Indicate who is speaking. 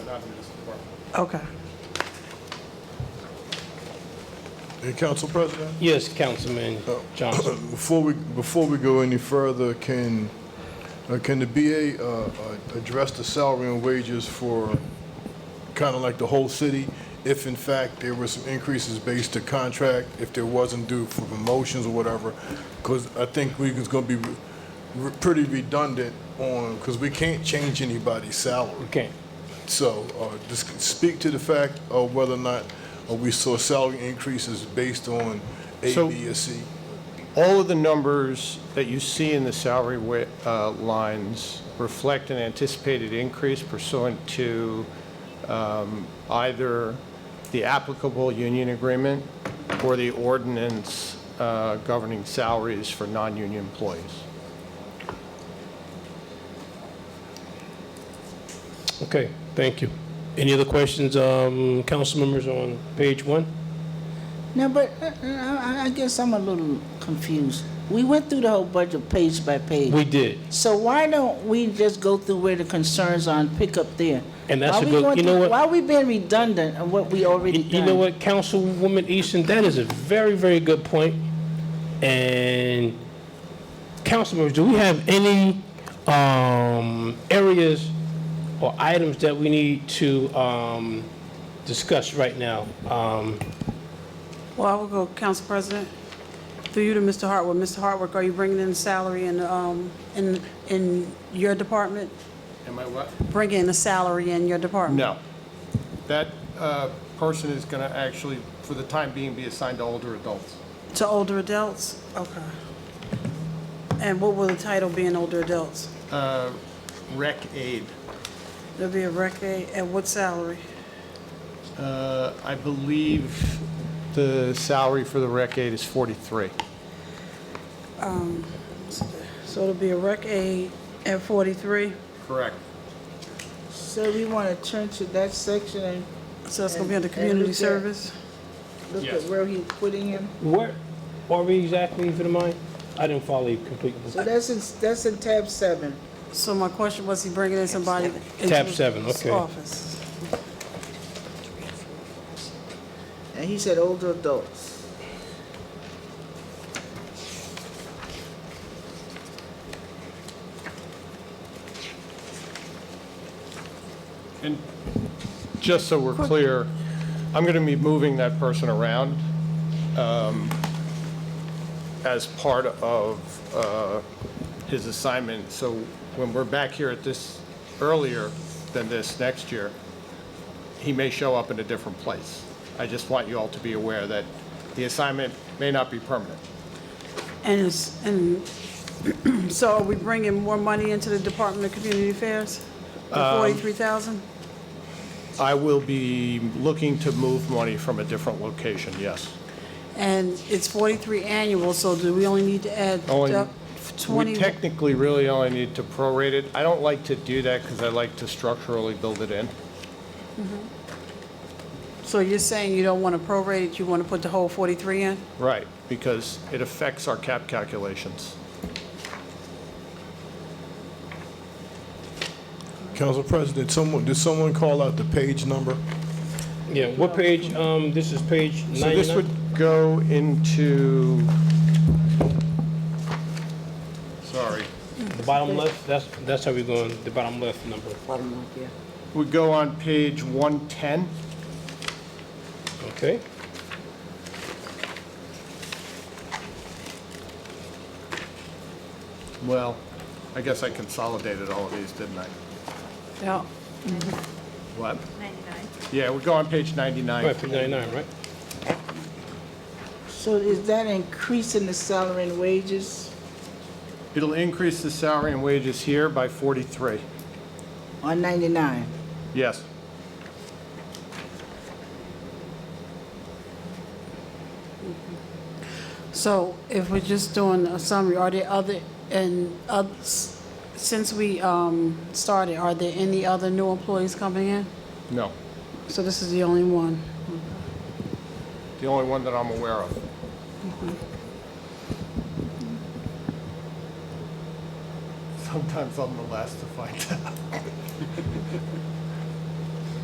Speaker 1: not in this department.
Speaker 2: Okay.
Speaker 3: Hey, Council President?
Speaker 4: Yes, Councilman
Speaker 1: Oh.
Speaker 4: Johnson.
Speaker 3: Before we, before we go any further, can, uh, can the BA uh, uh, address the salary and wages for kind of like the whole city? If in fact there were some increases based to contract, if there wasn't due for promotions or whatever? Because I think we is going to be re- re- pretty redundant on, because we can't change anybody's salary.
Speaker 4: Okay.
Speaker 3: So, uh, just speak to the fact of whether or not uh, we saw salary increases based on A,
Speaker 1: So-
Speaker 3: B, or C.
Speaker 1: All of the numbers that you see in the salary wi- uh, lines reflect an anticipated increase pursuant to um, either the applicable union agreement or the ordinance uh, governing salaries for non-union employees.
Speaker 4: Okay, thank you. Any other questions, um, council members on page one?
Speaker 5: No, but uh, I, I guess I'm a little confused. We went through the whole budget page by page.
Speaker 4: We did.
Speaker 5: So why don't we just go through where the concerns are and pick up there?
Speaker 4: And that's
Speaker 5: Why
Speaker 4: a
Speaker 5: we
Speaker 4: good-
Speaker 5: going
Speaker 4: you know
Speaker 5: through-
Speaker 4: what?
Speaker 5: Why we being redundant on what we already
Speaker 4: You-
Speaker 5: done?
Speaker 4: You know what, Councilwoman Easton, that is a very, very good point. And council members, do we have any um, areas or items that we need to um, discuss right now? Um,
Speaker 2: Well, I will go, Council President, through you to Mr. Hartwick. Mr. Hartwick, are you bringing in salary in, um, in, in your department?
Speaker 1: Am I what?
Speaker 2: Bring in a salary in your department?
Speaker 1: No. That uh, person is going to actually, for the time being, be assigned to older adults.
Speaker 2: To older adults? Okay. And what will the title be in older adults?
Speaker 1: Uh, Rec aid.
Speaker 2: There'll be a rec aide, at what salary?
Speaker 1: Uh, I believe the salary for the rec aid is 43.
Speaker 2: So it'll be a rec aide at 43,
Speaker 1: Correct.
Speaker 5: So we want to turn to that section and
Speaker 2: so it's gonna be under
Speaker 5: And- and
Speaker 2: community
Speaker 5: look at-
Speaker 2: service?
Speaker 5: look
Speaker 1: Yes.
Speaker 5: at where he's putting him?
Speaker 4: Where are we exactly, if you don't mind? I didn't follow you completely.
Speaker 5: So that's in, that's in tab seven.
Speaker 2: So my question was, he bringing in somebody into
Speaker 4: Tab
Speaker 2: his
Speaker 4: seven, okay.
Speaker 2: office?
Speaker 5: And he said older adults.
Speaker 1: And just so we're clear, I'm going to be moving that person around um, as part of uh, his assignment. So when we're back here at this, earlier than this next year, he may show up in a different place. I just want you all to be aware that the assignment may not be permanent.
Speaker 2: And it's, and, so are we bringing more money into the Department of Community Affairs?
Speaker 1: Um,
Speaker 2: The 43,000?
Speaker 1: I will be looking to move money from a different location, yes.
Speaker 2: And it's 43 annual, so do we only need to add
Speaker 1: Only-
Speaker 2: up
Speaker 1: We
Speaker 2: 20?
Speaker 1: technically really only need to prorate it. I don't like to do that because I like to structurally build it in.
Speaker 2: So you're saying you don't want to prorate it, you want to put the whole 43 in?
Speaker 1: Right. Because it affects our cap calculations.
Speaker 3: Council President, someone, did someone call out the page number?
Speaker 4: Yeah, what page, um, this is page
Speaker 1: So this
Speaker 4: 99?
Speaker 1: would go into, sorry,
Speaker 4: The bottom left, that's, that's how we're going, the bottom left number.
Speaker 5: Bottom up, yeah.
Speaker 1: would go on page 110.
Speaker 4: Okay.
Speaker 1: Well, I guess I consolidated all of these, didn't I?
Speaker 2: Yeah.
Speaker 1: What? 99. Yeah, we go on page 99.
Speaker 4: Right, page 99, right?
Speaker 5: So is that increasing the salary and wages
Speaker 1: It'll increase the salary and wages here by 43.
Speaker 5: on ninety-nine?
Speaker 1: Yes.
Speaker 2: So if we're just doing a summary, are there other, and others, since we um, started, are there any other new employees coming in?
Speaker 1: No.
Speaker 2: So this is the only one?
Speaker 1: The only one that I'm aware of. Sometimes I'm the last to find out.